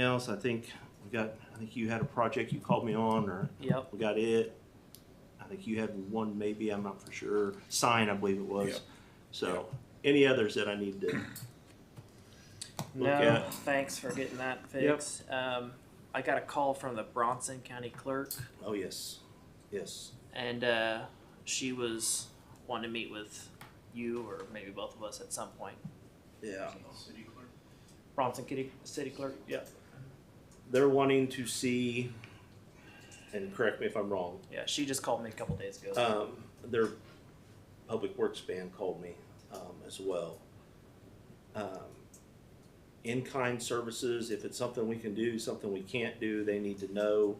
else, I think we got, I think you had a project you called me on, or Yep. we got it. I think you had one maybe, I'm not for sure, sign, I believe it Yeah. was. So, any others that I need to, No, Okay. thanks for getting that fixed. Um, I got a call from the Bronson County Clerk oh, yes, yes. and, uh, she was wanting to meet with you or maybe both of us at some point. Yeah. Bronson City, City Clerk? Yep. They're wanting to see, and correct me if I'm wrong, Yeah, she just called me a couple days ago. Um, their public works band called me, um, as well. Um, In-kind services, if it's something we can do, something we can't do, they need to know,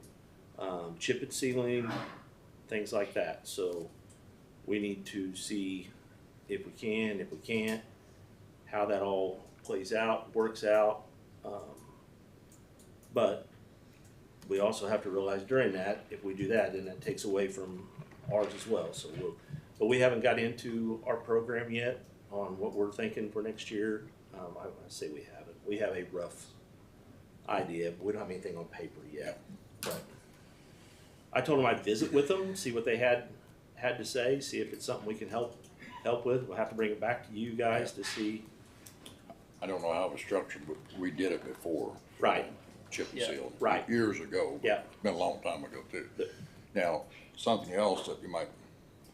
um, chip and sealing, things like that, so we need to see if we can, if we can't, how that all plays out, works out, um, but we also have to realize during that, if we do that, then that takes away from ours as well, so we'll, but we haven't got into our program yet on what we're thinking for next year. Um, I, I say we haven't, we have a rough idea, but we don't have anything on paper yet, but. I told them I'd visit with them, see what they had, had to say, see if it's something we can help, help with, we'll have to bring it back to you guys to see. I don't know how it was structured, but we did it before. Right. Chip and Yeah, seal. right. Years ago. but Yeah. It's been a long time ago too. Yeah. Now, something else that you might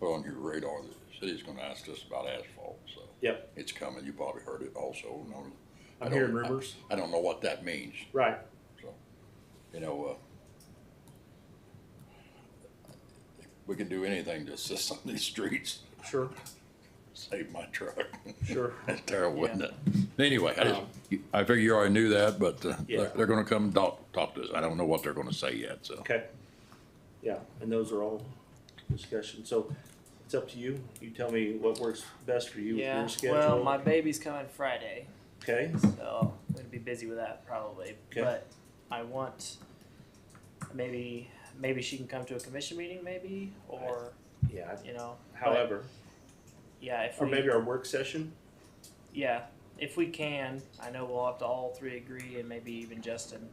put on your radar, the city's gonna ask us about asphalt, so. Yep. It's coming, you probably heard it also, and I'm- I I'm don't- hearing rumors, I don't know what that means, right, you know, uh, we can do anything to assist on these streets, sure, save my truck. sure, That's terrible, isn't it? Anyway, I just, Um, I figure you already knew that, but uh, Yeah. they're, they're gonna come talk, talk to us. I don't know what they're gonna say yet, so. okay. Yeah, and those are all discussions, so it's up to you, you tell me what works best for you with yeah. your schedule. Well, my baby's coming Friday, Okay, so I'm gonna be busy with that probably. Okay. But I want maybe maybe she can come to a commission meeting, maybe or yeah, you know. but, however, yeah, if or we, maybe our work session, yeah, if we can, I know we'll have to all three agree and maybe even Justin,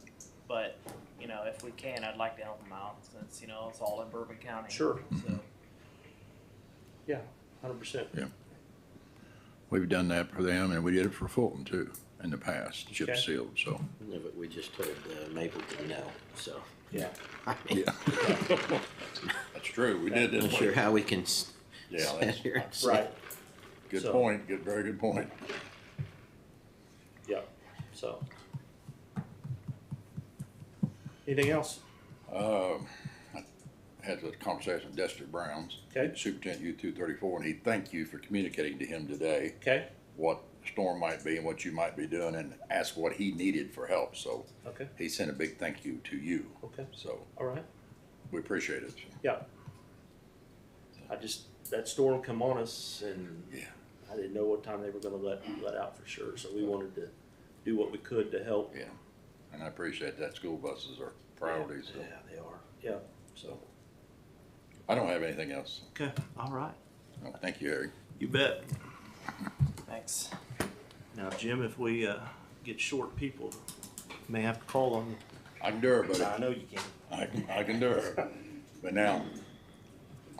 but you know, if we can, I'd like to help them out since you know it's all in Bourbon County. sure, So hundred percent, We've done that for them and we did it for Fulton too in the past, chip Okay. sealed, so. No, but we just told uh, Mapleton no, so. yeah. I mean, Yeah. That's true, we did I'm this. not sure how we can s- Yeah, stand that's, here and say. Right, good So- point, good, very good point. yeah, so. Anything else? Um, I had a conversation with Dexter Browns, Okay, Superintendent U two thirty-four, and he thanked you for communicating to him today. okay, what storm might be and what you might be doing and ask what he needed for help. So okay, he sent a big thank you to you. okay, So all right. we appreciate it. I just, that storm come on us and Yeah. I didn't know what time they were gonna let, let out for sure, so we wanted to do what we could to help. Yeah. And I appreciate that. School buses are priorities. Yeah, they are, yeah, So I don't have anything else. okay, all right, No, Thank you, Harry. you bet. thanks. Now, Jim, if we, uh, get short people, may have to call on you. I can do it, buddy. I know you can. I can, I can do it. But now,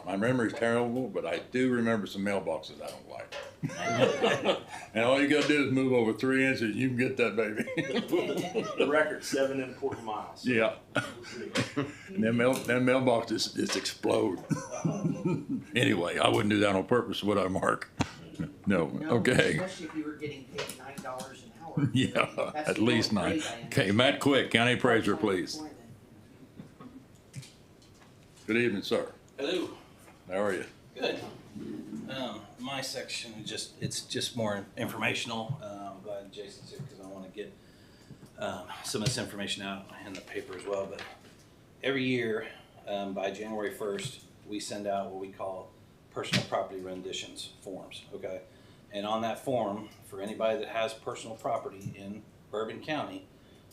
my memory's terrible, but I do remember some mailboxes I don't like. And all you gotta do is move over three inches, and you can get that baby. The record, seven important miles. Yeah. And Them mail, them mailboxes just explode. Anyway, I wouldn't do that on purpose, would I, Mark? No, No, okay, Especially if you were getting paid nine dollars an hour. yeah, That's at the least going nine. rate I am. Okay, Matt Quick, county appraiser, please. Employment. Good evening, sir. Hello. How are you? Good. Um, my section is just it's just more informational. Uh, I'm glad Jason's here because I want to get um, some of this information out in the paper as well. But every year um, by January 1st, we send out what we call personal property renditions forms. Okay, and on that form, for anybody that has personal property in Bourbon County,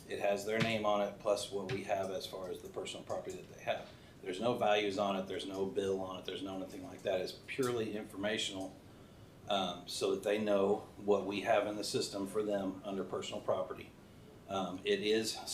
it has their name on it plus what we have as far as the personal property that they have. There's no values on it, there's no bill on it, there's no nothing like that. It's purely informational um, so that they know what we have in the system for them under personal property. Um, it is